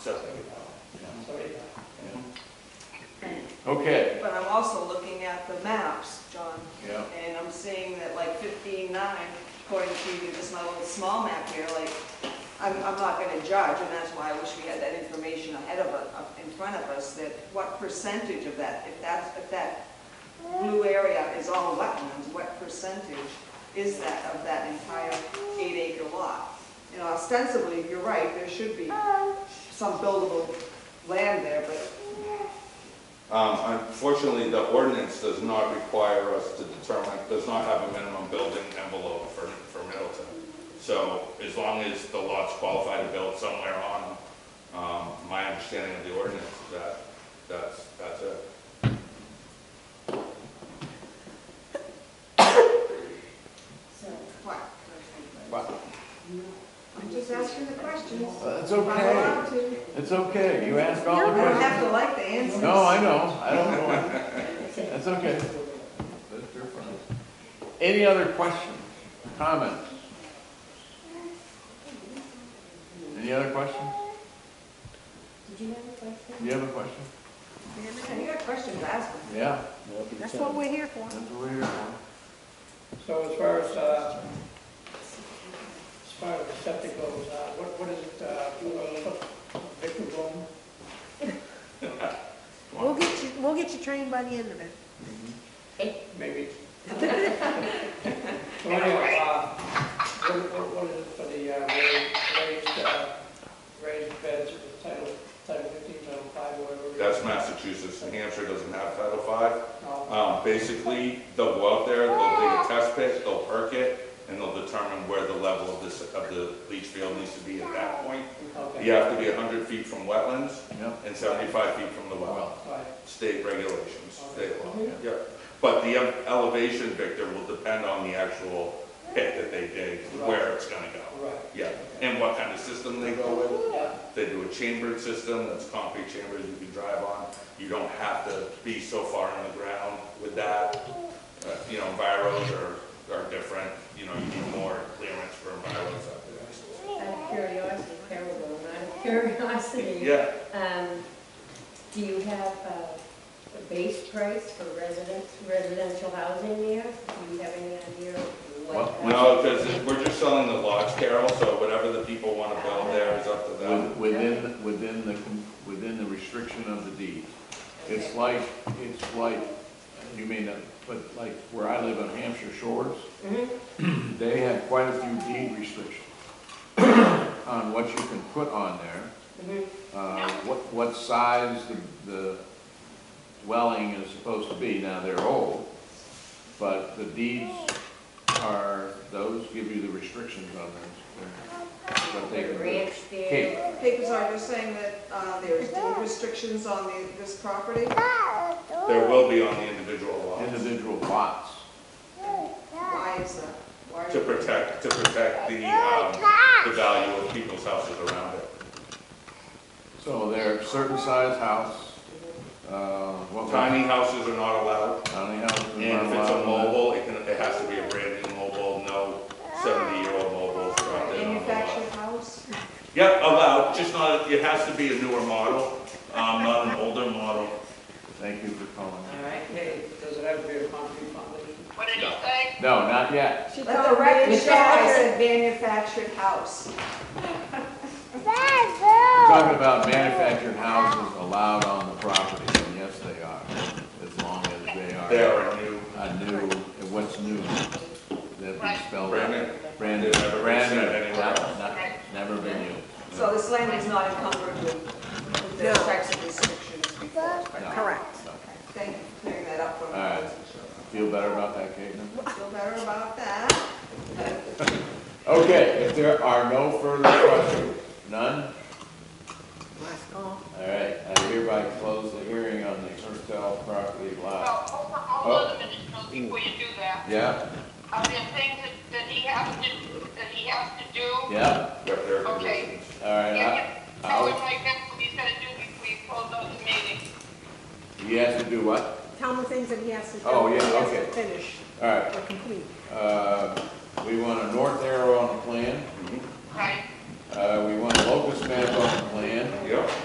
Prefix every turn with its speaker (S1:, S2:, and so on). S1: Okay,
S2: But I'm also looking at the maps, John,
S1: yeah,
S2: and I'm seeing that like fifteen-nine, according to just my little small map here, like, I'm, I'm not gonna judge, and that's why I wish we had that information ahead of us, up in front of us, that what percentage of that, if that's, if that blue area is all wetlands, what percentage is that of that entire eight-acre lot? You know, ostensibly, you're right, there should be some buildable land there, but
S3: Um, Unfortunately, the ordinance does not require us to determine, does not have a minimum building envelope for, for Middleton. So as long as the lot's qualified to build somewhere on them, um, my understanding of the ordinance is that, that's, that's it.
S4: So,
S2: what?
S1: but
S2: I'm just asking the questions.
S1: it's
S2: If I'm
S1: okay,
S2: allowed to.
S1: it's okay, you asked all the
S2: I don't have
S1: questions.
S2: to like the answers.
S1: No, I know, I don't know.
S4: that's
S1: okay. Any other questions, comments? Any other questions?
S4: Did you have a question?
S1: Do you have a question?
S2: Every time You got questions, ask them.
S1: Yeah,
S2: That's what we're here for.
S1: that's what we're here for.
S5: So as far as, uh, as far as the septic goes, uh, what, what is it, uh, Victor Bloom?
S6: We'll get you, we'll get you trained by the end of it.
S5: Maybe. So anyway, uh, what, what- what is it for the, uh, raised, raised, uh, raised beds, title, title fifteen, title five, whatever? it is?
S3: That's Massachusetts, New Hampshire doesn't have Title V.
S5: No,
S3: Um, Basically, they'll go out there, they'll dig a test pit, they'll perk it, and they'll determine where the level of this, of the leach field needs to be at that point.
S5: okay.
S3: You have to be 100 feet from wetlands
S1: Yeah,
S3: and 75 feet from the well.
S1: well,
S5: All right.
S3: State regulations, state law, yeah. But the um, elevation, Victor, will depend on the actual pit that they dig, where it's gonna go.
S5: Right.
S3: Yeah, and what kind of system they go with.
S5: Yeah,
S3: They do a chambered system, that's concrete chambers you can drive on. You don't have to be so far in the ground with that. Uh, You know, viros are, are different, you know, you need more clearance for viros up there.
S4: Out of curiosity, terrible, out of curiosity.
S3: Yeah,
S4: Um, do you have uh, a base price for residents, residential housing there? Do you have any idea of what?
S3: No, because we're just selling the lots, Carol, so whatever the people want to build there is up to
S1: with-
S3: them.
S1: within, within the, com- within the restriction of the deed. It's like, it's like, you may not, but like where I live on Hampshire Shores,
S4: Mhm.
S1: they have quite a few deed restrictions on what you can put on there,
S4: Mhm.
S1: uh, what, what size the, the dwelling is supposed to be. Now, they're old, but the deeds are, those give you the restrictions on those, what they can do.
S4: Ranch there?
S1: Kate.
S2: Papers are just saying that uh, there's deed restrictions on the- this property.
S3: There will be on the individual lots
S1: individual lots.
S2: Why is that? Why
S3: to
S2: are
S3: protect, to protect the, um, the value of people's houses around it.
S1: So there are certain size house, uh, what
S3: Tiny houses are not allowed,
S1: Tiny houses.
S3: and if it's a mobile, it can, it has to be a brand new mobile, no seventy-year-old mobiles dropped in on the lot.
S2: manufactured house?
S3: Yep, allowed, just not, it has to be a newer model, um, not an older model.
S1: Thank you for calling.
S5: all right, hey, does it have to be a concrete foundation?
S3: No.
S1: No, not yet.
S6: She
S2: Let the
S6: called
S2: record
S6: me.
S2: show I said manufactured house.
S1: We're talking about manufactured houses allowed on the property, and yes, they are, as long as they are.
S3: They are a new,
S1: A new, what's new, that we spelled.
S3: brand new.
S1: Brand new,
S3: They've never been
S1: brand new,
S3: seen anywhere else.
S1: Not- not- never been used.
S2: So this land is not encumbered with with those
S6: No.
S2: types of restrictions before.
S1: No.
S6: Correct.
S1: No.
S2: Thank you for clearing that up for me.
S1: All right. Feel better about that, Caitlin?
S2: Feel better about that?
S1: Okay, if there are no further questions, none,
S6: Last call.
S1: all right, I hereby close the hearing on the Hertel property
S7: Well,
S1: lot.
S7: hold on, hold on a minute, Bill, before you do that.
S1: Yeah,
S7: Are there things that, that he has to, that he has to do?
S1: yeah,
S3: Yep, there are
S7: Okay.
S3: conditions.
S1: all right, I-
S7: Yeah, Tell him
S1: I'll,
S7: like that's what he's gonna do before you close out the meeting.
S1: he has to do what?
S6: Tell him the things that he has to do.
S1: Oh, yeah,
S6: He has to
S1: okay.
S6: Finish
S1: All right,
S6: or complete.
S1: uh, we want a north arrow on the plan,
S7: Right,
S1: uh, we want a locust map on the plan,
S3: Yep,